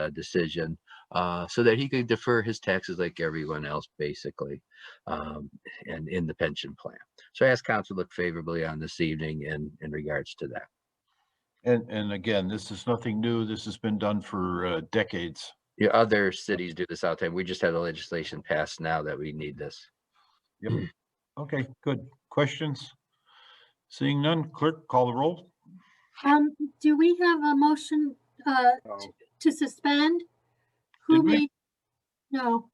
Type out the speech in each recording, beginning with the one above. uh, decision uh, so that he could defer his taxes like everyone else, basically, um, and in the pension plan. So I ask council to look favorably on this evening in, in regards to that. And, and again, this is nothing new. This has been done for uh, decades. Yeah, other cities do this all the time. We just had the legislation passed now that we need this. Okay, good. Questions? Seeing none, clerk, call the roll. Um, do we have a motion, uh, No. to suspend? Who Did we? made? No,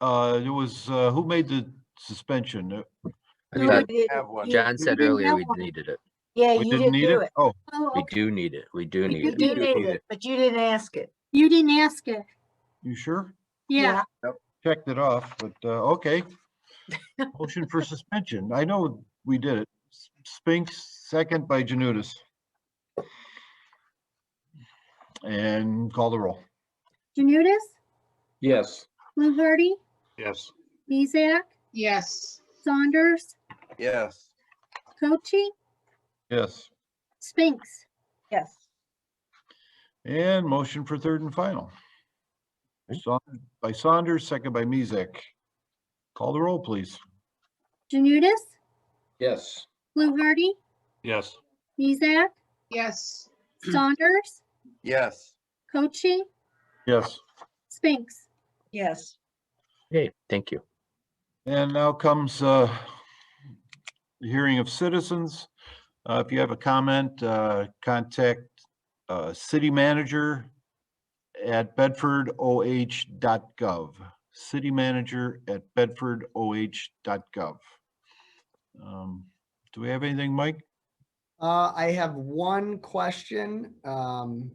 Uh, it was, uh, who made the suspension? Uh, I No, thought we Have one. John said we didn't earlier have we one. needed it. Yeah, you We didn't didn't need do it? it. Oh, oh, We okay. do need it. We do need You it. We did do need need it, it. but you didn't ask it. you didn't ask it. you sure? Yeah, Checked it off, but, uh, okay. Motion for suspension. I know we did it. S- Spinks, second by Janutus. And call the roll. Janutus, Yes. Fluharty, Yes. Mizek, yes, Saunders, Yes. Cochi, Yes. Spinks. Yes. And motion for third and final. Saun- By Saunders, second by Mezek. Call the roll, please. Janutus, Yes. Fluharty, Yes. Mizek, yes, Saunders, Yes. Cochi, Yes. Spinks. Yes. Okay, thank you. And now comes uh, the hearing of citizens. Uh, If you have a comment, uh, contact uh, city manager at bedfordoh.gov. City manager at bedfordoh.gov. Um, Do we have anything, Mike? Uh, I have one question. Um,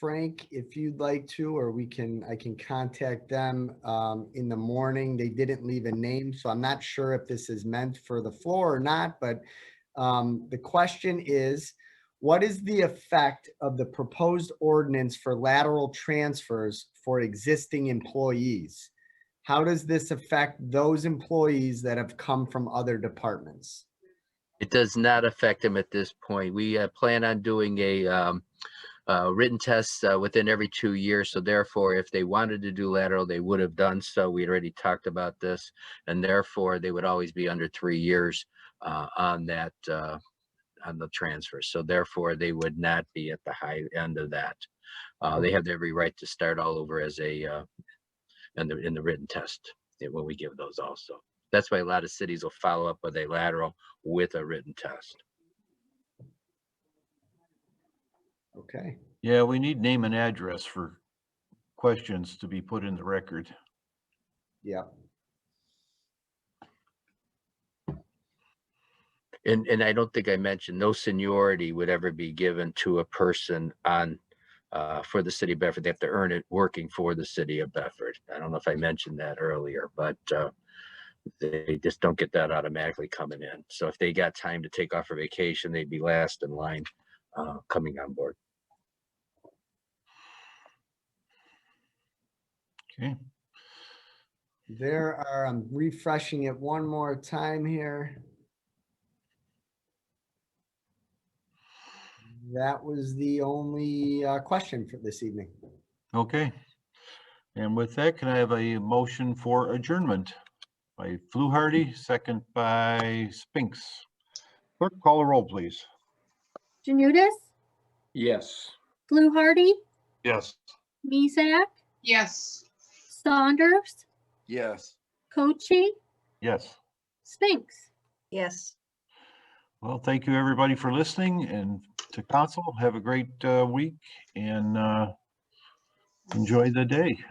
Frank, if you'd like to, or we can, I can contact them, um, in the morning. They didn't leave a name, so I'm not sure if this is meant for the floor or not, but, um, the question is, what is the effect of the proposed ordinance for lateral transfers for existing employees? How does this affect those employees that have come from other departments? It does not affect them at this point. We uh, plan on doing a um, uh, written test uh, within every two years. So therefore, if they wanted to do lateral, they would have done so. We had already talked about this, and therefore they would always be under three years uh, on that uh, on the transfer. So therefore, they would not be at the high end of that. Uh, they have every right to start all over as a uh, in the in the written test eh, when we give those also. That's why a lot of cities will follow up with a lateral with a written test. Okay. Yeah, we need name and address for questions to be put in the record. Yeah, And, and I don't think I mentioned, no seniority would ever be given to a person on, uh, for the city of Bedford. They have to earn it working for the city of Bedford. I don't know if I mentioned that earlier, but, uh, they just don't get that automatically coming in. So if they got time to take off for vacation, they'd be last in line, uh, coming on board. Okay, there are, I'm refreshing it one more time here. That was the only uh, question for this evening. okay. And with that, can I have a motion for adjournment? By Fluharty, second by Spinks. Clerk, call a roll, please. Janutus, Yes. Fluharty, Yes. Mizek, yes. Saunders, Yes. Cochi, Yes. Spinks. Yes. Well, thank you, everybody, for listening and to council. Have a great uh, week and uh, enjoy the day.